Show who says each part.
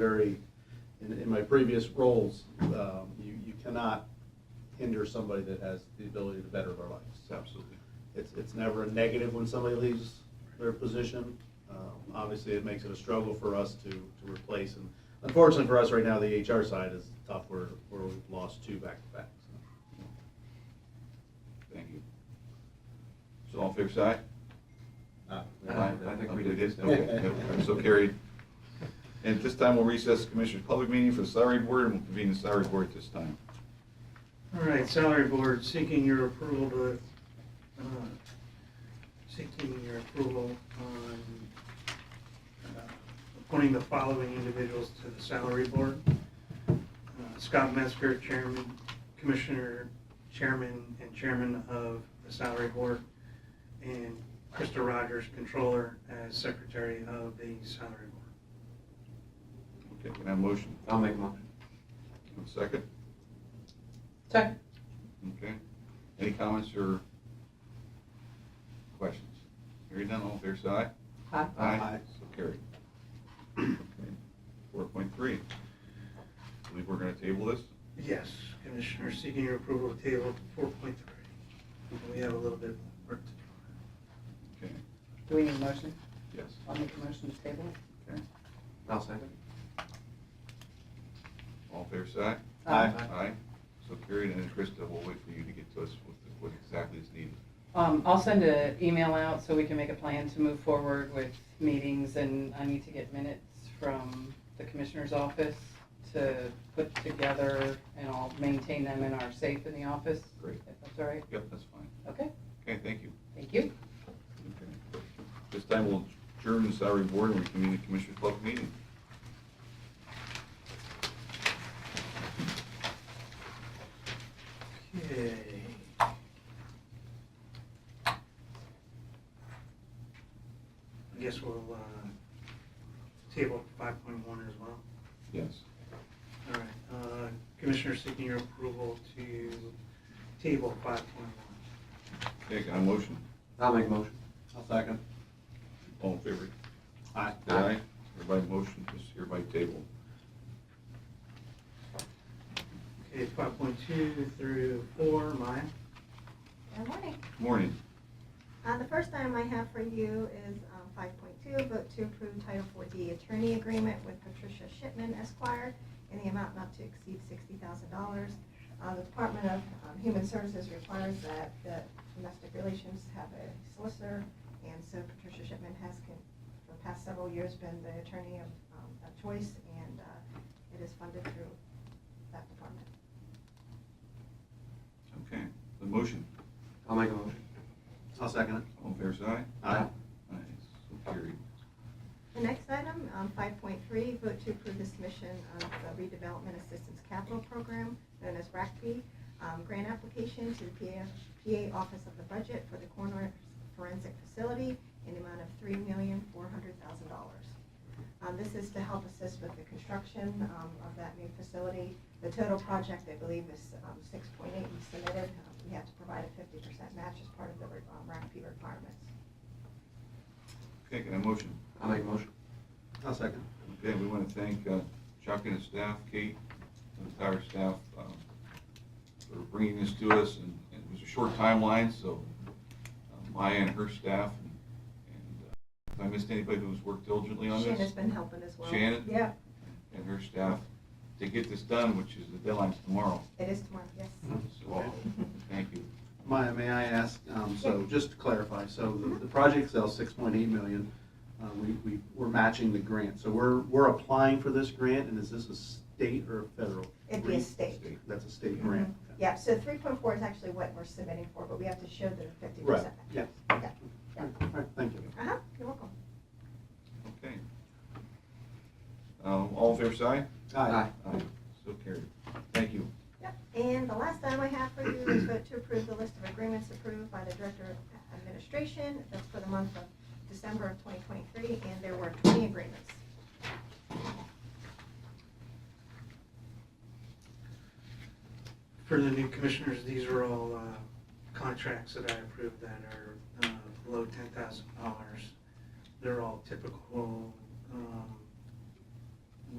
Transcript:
Speaker 1: very, in, in my previous roles, um, you, you cannot hinder somebody that has the ability to better their life. So
Speaker 2: Absolutely.
Speaker 1: it's, it's never a negative when somebody leaves their position. Um, Obviously, it makes it a struggle for us to, to replace. And unfortunately for us right now, the HR side is tough where, where we've lost two back to back.
Speaker 2: Thank you. So all fair side?
Speaker 1: Uh,
Speaker 2: I Uh, I think we did it. Okay. Yep. All right, So carried. And at this time, we'll recess the Commissioners' Public Meeting for the Salary Board, and we'll convene the Salary Board at this time.
Speaker 3: All right, salary board seeking your approval to, uh, seeking your approval on uh, appointing the following individuals to the salary board. Uh, Scott Metzger, chairman, commissioner, chairman, and chairman of the salary board, and Krista Rogers, controller, as secretary of the salary board.
Speaker 2: Okay, can I have a motion?
Speaker 4: I'll make a motion.
Speaker 2: A Second?
Speaker 5: Second.
Speaker 2: Okay. Any comments or questions? Hearing none, all fair side?
Speaker 5: Aye.
Speaker 1: Aye.
Speaker 2: So carried. Four point three. I believe we're going to table this.
Speaker 3: Yes, Commissioner, seeking your approval of table four point three. We have a little bit of work to do.
Speaker 2: Okay,
Speaker 5: Do we need a motion?
Speaker 2: yes.
Speaker 5: I'll make a motion to table it.
Speaker 2: Okay.
Speaker 4: I'll second.
Speaker 2: All fair side?
Speaker 5: Aye.
Speaker 2: Aye. So carried, and then Krista, we'll wait for you to get to us with what exactly is needed.
Speaker 5: Um, I'll send an email out so we can make a plan to move forward with meetings and I need to get minutes from the commissioner's office to put together and I'll maintain them in our safe in the office.
Speaker 2: Great.
Speaker 5: If that's all right.
Speaker 2: Yep, that's fine.
Speaker 5: Okay,
Speaker 2: Okay, thank you.
Speaker 5: thank you.
Speaker 2: Okay. This time we'll adjourn the salary board and reconvene the commissioners' public meeting.
Speaker 3: Okay. I guess we'll, uh, table five point one as well.
Speaker 2: Yes.
Speaker 3: All right, uh, Commissioner seeking your approval to table five point one.
Speaker 2: Okay, got a motion?
Speaker 4: I'll make a motion.
Speaker 1: I'll second.
Speaker 2: All in favor?
Speaker 1: Aye.
Speaker 2: Aye. Everybody motion is hereby table.
Speaker 3: Okay, five point two through four, mine.
Speaker 6: Good morning.
Speaker 2: Morning.
Speaker 6: Uh, The first item I have for you is um, 5.2, vote to approve Title 4D Attorney Agreement with Patricia Shipman Esquire in the amount not to exceed $60,000. Uh, The Department of um, Human Services requires that that domestic relations have a solicitor, and so Patricia Shipman has, con- for the past several years, been the attorney of um, of choice, and uh, it is funded through that department.
Speaker 2: Okay, the motion.
Speaker 4: I'll make a motion.
Speaker 1: I'll second it.
Speaker 2: All in favor, say aye.
Speaker 1: Aye.
Speaker 2: Aye. So carried.
Speaker 6: The next item, um, 5.3, vote to approve the submission of the redevelopment assistance capital program, known as RACP, um, grant application to the PA, PA Office of the Budget for the coroner forensic facility in the amount of $3,400,000. Um, This is to help assist with the construction um, of that new facility. The total project, I believe, is um, 6.8 we submitted. Um, We have to provide a 50% match as part of the um, RACP requirements.
Speaker 2: Okay, can I have a motion?
Speaker 4: I'll make a motion.
Speaker 1: I'll second.
Speaker 2: Okay, we want to thank uh, Chuck and his staff, Kate, and the entire staff um, for bringing this to us, and and it was a short timeline, so uh, Maya and her staff, and and, uh, if I missed anybody who's worked diligently on
Speaker 6: Shannon's
Speaker 2: this,
Speaker 6: been helping as well.
Speaker 2: Shannon?
Speaker 6: Yeah,
Speaker 2: and her staff, to get this done, which is the deadline's tomorrow.
Speaker 6: it is tomorrow, yes.
Speaker 2: So, thank you.
Speaker 1: Maya, may I ask, um, so just to clarify, so the, the project sells six point eight million. Uh, we, we, we're matching the grant, so we're, we're applying for this grant, and is this a state or a federal?
Speaker 6: It'd be a state. Mm-hmm.
Speaker 2: State.
Speaker 1: That's a state grant.
Speaker 6: Yeah, so three point four is actually what we're submitting for, but we have to show the fifty
Speaker 1: Right,
Speaker 6: percent.
Speaker 1: yeah. All
Speaker 6: Yeah.
Speaker 1: right, thank you.
Speaker 6: Uh-huh, you're welcome.
Speaker 2: Okay. Um, All in favor, say
Speaker 1: Aye.
Speaker 4: Aye.
Speaker 2: aye. So carried. Thank you.
Speaker 6: Yep. And the last item I have for you is vote to approve the list of agreements approved by the Director of Administration. That's for the month of December of twenty twenty-three, and there were twenty agreements.
Speaker 3: For the new commissioners, these are all uh, contracts that I approved that are uh, below ten thousand dollars. They're all typical um,